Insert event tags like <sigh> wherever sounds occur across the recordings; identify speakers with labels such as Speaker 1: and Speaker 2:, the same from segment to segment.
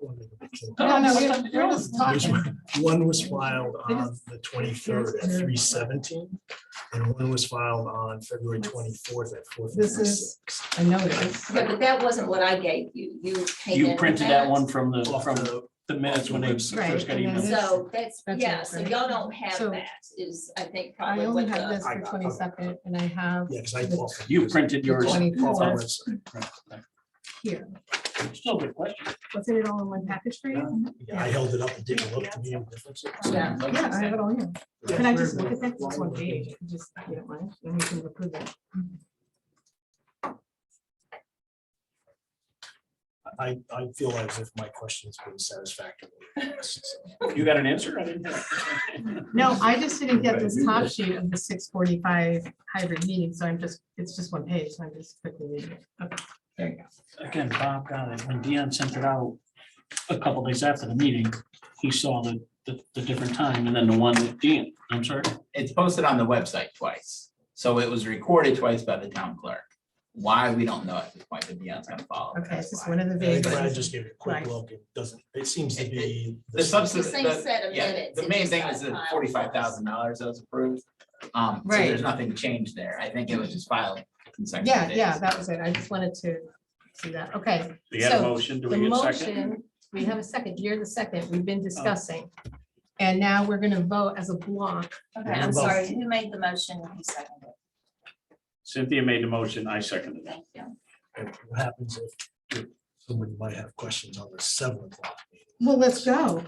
Speaker 1: No, no,
Speaker 2: What's
Speaker 1: we're,
Speaker 2: up,
Speaker 1: we're
Speaker 2: Joe?
Speaker 1: just
Speaker 2: There's
Speaker 1: talking.
Speaker 3: One was filed on the twenty-third at three seventeen, and one was filed on February twenty-fourth at four
Speaker 1: This
Speaker 3: fifty-six.
Speaker 1: is a notice.
Speaker 2: Yeah, but that wasn't what I gave you. You came in.
Speaker 4: You printed that one from the,
Speaker 3: Off
Speaker 4: from
Speaker 3: the,
Speaker 4: the minutes when they first
Speaker 1: Right,
Speaker 4: got
Speaker 1: and then
Speaker 4: emailed.
Speaker 1: this-
Speaker 2: So that's,
Speaker 1: That's
Speaker 2: yeah,
Speaker 1: it,
Speaker 2: so
Speaker 1: right?
Speaker 2: y'all don't have
Speaker 1: So-
Speaker 2: that is, I think,
Speaker 1: I
Speaker 2: probably
Speaker 1: only
Speaker 2: what
Speaker 3: uh,
Speaker 1: have
Speaker 2: the.
Speaker 1: this for twenty-second and I have
Speaker 3: yeah, because I. off-
Speaker 4: You printed yours.
Speaker 3: off the
Speaker 1: 24th.
Speaker 3: website.
Speaker 1: here.
Speaker 4: Still a good question.
Speaker 1: Wasn't it all in one package for you?
Speaker 3: Yeah, I held it up and didn't look to me. any difference.
Speaker 2: Yeah.
Speaker 1: Yeah, I have it all here. Can I just look at that? It's one page. I can Just, if you don't mind, then we can approve that.
Speaker 3: I, I feel as if my question's been satisfactory.
Speaker 4: You got an answer? I didn't. <laughs>
Speaker 1: No, I just didn't get this top sheet of the six forty-five hybrid meeting, so I'm just, it's just one page, so I'm just quickly reading it. Okay, There you go.
Speaker 4: Again, Bob got it. When Dion sent it out a couple days after the meeting, he saw the, the, the different time and then the one that Dion, I'm sorry.
Speaker 5: it's posted on the website twice. So it was recorded twice by the town clerk. Why, we don't know at this point, but Dion's gonna follow.
Speaker 1: Okay, it's
Speaker 5: That's
Speaker 1: just
Speaker 5: why.
Speaker 1: one of the
Speaker 3: I think
Speaker 1: vague
Speaker 3: Brad
Speaker 1: ones.
Speaker 3: just gave it a quick
Speaker 1: Right.
Speaker 3: look. It doesn't, it seems to be.
Speaker 5: The
Speaker 2: It's the
Speaker 5: substance,
Speaker 2: same
Speaker 5: the,
Speaker 2: set of
Speaker 5: yeah,
Speaker 2: minutes.
Speaker 5: the
Speaker 2: it
Speaker 5: main
Speaker 2: just
Speaker 5: thing
Speaker 2: got
Speaker 5: is the
Speaker 2: filed
Speaker 5: forty-five thousand dollars that was approved. Um, so
Speaker 1: Right.
Speaker 5: there's nothing changed there. I think it was just filed. in separate
Speaker 1: Yeah,
Speaker 5: days.
Speaker 1: yeah, that was it. I just wanted to see that. Okay,
Speaker 4: We had a
Speaker 1: So,
Speaker 4: motion. Do
Speaker 1: the
Speaker 4: we get a second? Oh.
Speaker 1: motion, we have a second, you're the second, we've been discussing. And now we're gonna vote as a block.
Speaker 2: Okay, I'm
Speaker 3: Number-
Speaker 2: sorry. Who made the motion? Who seconded it?
Speaker 4: Cynthia made the motion. I seconded it.
Speaker 2: Thank you.
Speaker 3: And What happens if somebody might have questions on the seven o'clock meeting?
Speaker 1: Well, let's go.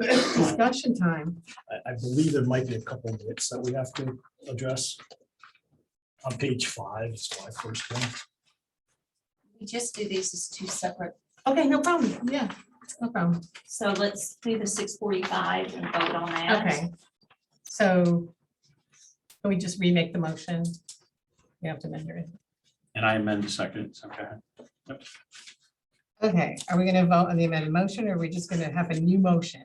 Speaker 1: Discussion time.
Speaker 3: I, I believe there might be a couple of bits that we have to address. On page five, it's my first one.
Speaker 2: We just do these as two separate.
Speaker 1: Okay, no problem. Yeah, no problem.
Speaker 2: So let's do the six forty-five and vote on that.
Speaker 1: Okay. So can we just remake the motion? We have to amend it.
Speaker 4: And I amend the second. Okay.
Speaker 1: Okay, are we gonna vote on the amended motion or are we just gonna have a new motion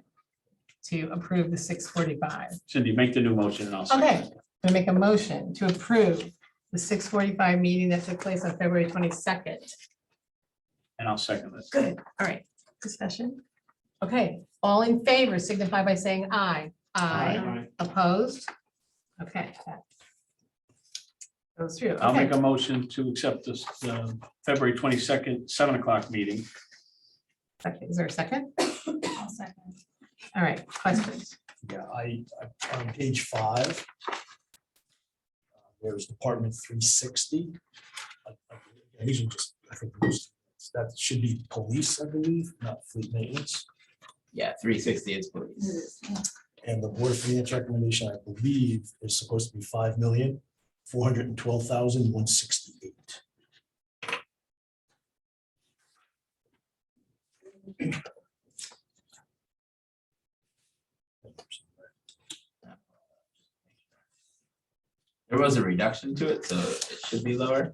Speaker 1: to approve the six forty-five?
Speaker 4: Cindy, make the new motion and I'll. second
Speaker 1: Okay.
Speaker 4: it.
Speaker 1: I make a motion to approve the six forty-five meeting that took place on February twenty-second.
Speaker 4: And I'll second it.
Speaker 1: Good, all right, discussion. Okay, all in favor signify by saying aye.
Speaker 4: Aye.
Speaker 1: Opposed? Okay. that Goes through,
Speaker 4: I'll
Speaker 1: okay,
Speaker 4: make a motion to accept this uh, February twenty-second, seven o'clock meeting.
Speaker 1: Okay, is there a second?
Speaker 2: I'll second.
Speaker 1: All right, questions?
Speaker 3: Yeah, I, I- on page five. uh, There's Department three sixty. Usually just, I think, those- that should be police, I believe, not fleet maintenance.
Speaker 5: Yeah, three sixty is police.
Speaker 3: And the Board of Finance recommendation, I believe, is supposed to be five million, four hundred and twelve thousand, one sixty-eight.
Speaker 5: There was a reduction to it, so it should be lower.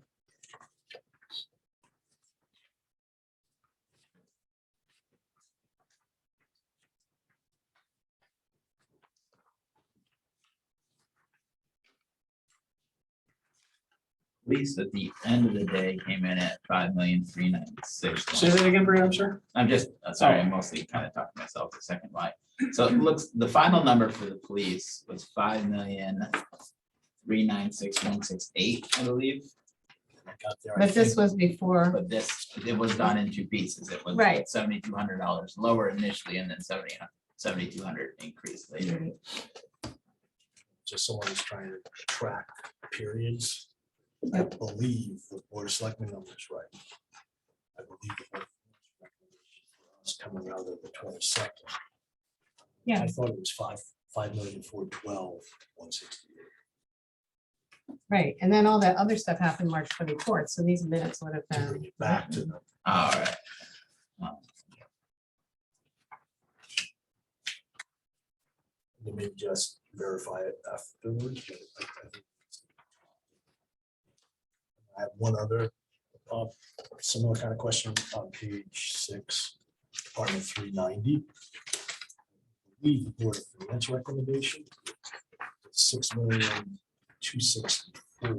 Speaker 5: Police at the end of the day came in at five million three ninety six.
Speaker 4: Say that again, Brian, sir.
Speaker 5: I'm just, uh, sorry, I'm mostly kind of talking to myself a second why. So it looks, the final number for the police was five million three nine six one six eight, I believe,
Speaker 3: I got there, I
Speaker 1: But this
Speaker 3: think,
Speaker 1: was before,
Speaker 5: but this, it was done in two pieces. It was
Speaker 1: Right.
Speaker 5: seventy-two hundred dollars lower initially and then seventy, seventy-two hundred increase later.
Speaker 3: Just someone who's trying to track periods. I
Speaker 1: Yep.
Speaker 3: believe the Board of Selectmen number is right. I believe the Board of Finance recommendation for us coming out of the twenty-second.
Speaker 1: Yeah.
Speaker 3: I thought it was five, five million, four twelve, one sixty-eight.
Speaker 1: right, and then all that other stuff happened March twenty-fourth, so these minutes would have
Speaker 3: To
Speaker 1: been.
Speaker 3: bring it back
Speaker 1: uh,
Speaker 3: to the
Speaker 5: All right.
Speaker 3: You may just verify it afterwards. but I- I think it's- I have one other uh, similar kind of question on page six, Department three ninety. The Board of Finance recommendation, six million, two sixty-four.